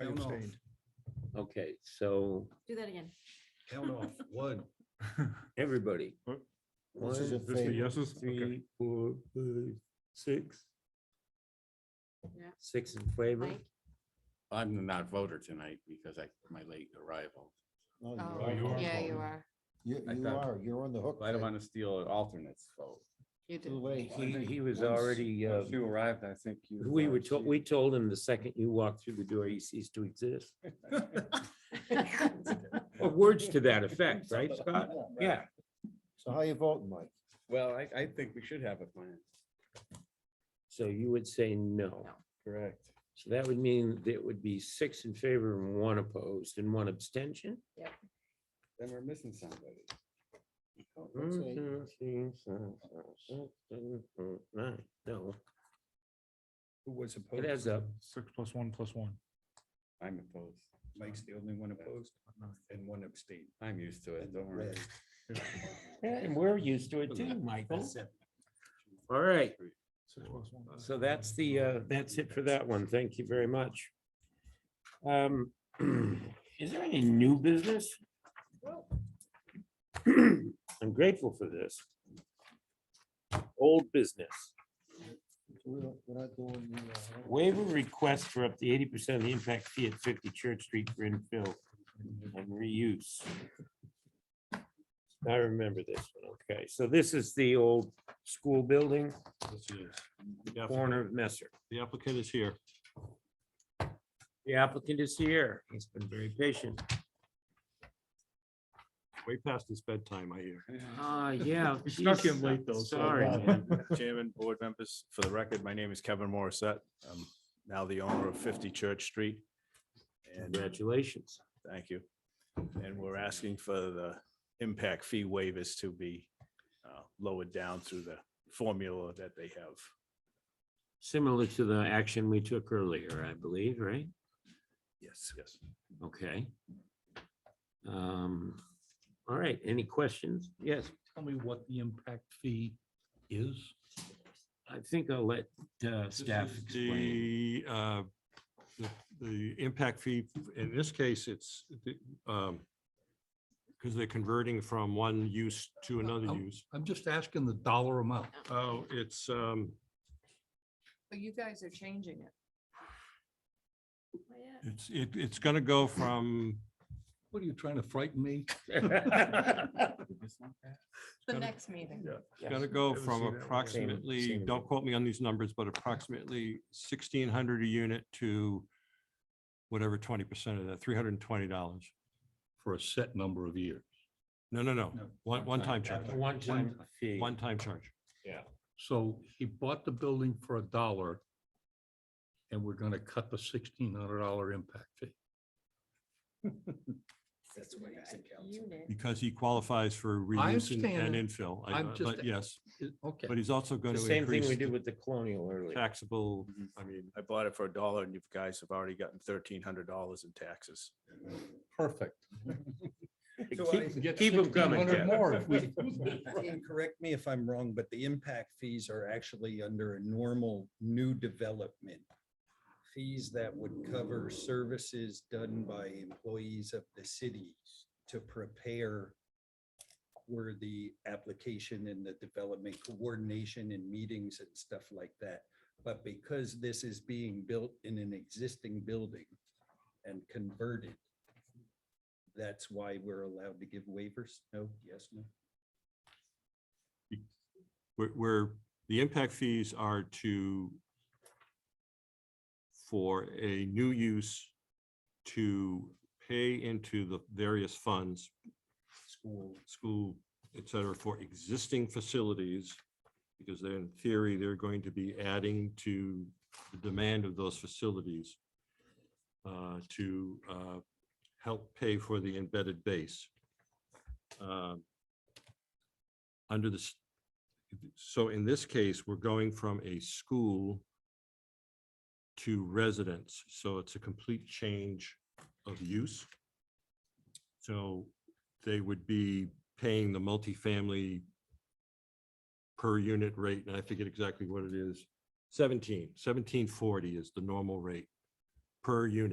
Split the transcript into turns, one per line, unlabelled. I
Hell no.
abstained.
Okay, so
Do that again.
Held off, one.
everybody.
What?
One,
This is a
two,
thing. yeses? Okay.
Three, four, five, six.
Yeah.
Six in favor.
Mike?
I'm not a voter tonight because I, my late arrival.
No,
Oh,
you are.
Yeah, you
voting.
are.
You,
I
you
thought-
are, you're on the hook.
I don't
Ted.
want to steal an alternate's vote.
You
Too
do.
late.
He, he was
Once-
already, uh,
Once you arrived, I think you.
we were
arrived.
told, we told him the second you walked through the door, he ceased to exist. Or words to that effect, right, Scott? Yeah,
So how you voting, Mike?
Well, I, I think we should have a plan.
so you would say no.
No.
Correct.
So that would mean that it would be six in favor and one opposed and one abstention.
Then we're missing somebody.
Mm,
Let's see.
two, three, four, five, six, seven, eight, nine. No,
Who was opposed?
it adds up.
Six plus one plus one.
I'm opposed.
Mike's the only one opposed and one abstained.
I'm used to it, don't worry.
Red.
And we're used to it too, Michael.
That's it.
All right,
Six plus one.
so that's the, uh, that's it for that one. Thank you very much. Um, is there any new business? I'm grateful for this. Old business.
We don't- We're not doing the. uh,
Waiver request for up to eighty percent of the impact fee at fifty Church Street for infill and reuse. I remember this one. Okay, so this is the old school building,
Yes, it is.
corner of Messer.
The applicant is here.
The applicant is here. He's been very patient.
Way past his bedtime, I hear.
Ah, yeah.
We snuck
geez,
in late though. so-
Sorry. man.
Chairman, board members, for the record, my name is Kevin Morissette. I'm now the owner of 50 Church Street. And uh,
Congratulations.
thank you. And we're asking for the impact fee waivers to be uh, lowered down through the formula that they have.
Similar to the action we took earlier, I believe, right?
Yes. Yes.
Okay. Um, all right, any questions? Yes,
Tell me what the impact fee is.
I think I'll let uh,
This
staff
is
explain.
The, uh, the, the impact fee, in this case, it's, um, because they're converting from one use to another
Oh.
use.
I'm just asking the dollar amount.
Oh, it's, um,
But you guys are changing it.
it's, it, it's gonna go from,
What are you trying to frighten me?
The
Gotta-
next meeting.
it's gonna go from approximately,
Same-
don't quote me on these numbers, but approximately sixteen hundred a unit to whatever twenty percent of that, three hundred and twenty dollars.
For a set number of years.
No, no, no,
No,
one, one time charge,
One time fee.
one time charge.
So he bought the building for a dollar. And we're gonna cut the sixteen hundred dollar impact fee.
That's what he's accounting.
Unit.
Because he qualifies for reuse and-
understand
and
it.
infill, I-
I'm
uh,
just-
but yes,
It- Okay.
but he's also going
The
to
same thing
increase
we did
the
with the colonial earlier.
taxable,
Mhm.
I mean,
I bought it for a dollar and you guys have already gotten $1,300 in taxes.
Perfect.
So I-
Keep- Keep them coming,
$1,600
Ken.
More if we.
And correct me if I'm wrong, but the impact fees are actually under a normal new development. Fees that would cover services done by employees of the city to prepare where the application and the development coordination and meetings and stuff like that. But because this is being built in an existing building and converted, that's why we're allowed to give waivers? No, yes, no?
where- where the impact fees are to for a new use to pay into the various funds,
School.
school, et cetera, for existing facilities. Because they're in theory, they're going to be adding to the demand of those facilities uh, to uh, help pay for the embedded base. Um, Under this, so in this case, we're going from a school to residence, so it's a complete change of use. So they would be paying the multifamily per unit rate, and I forget exactly what it is, 17, 1740 is the normal rate per unit.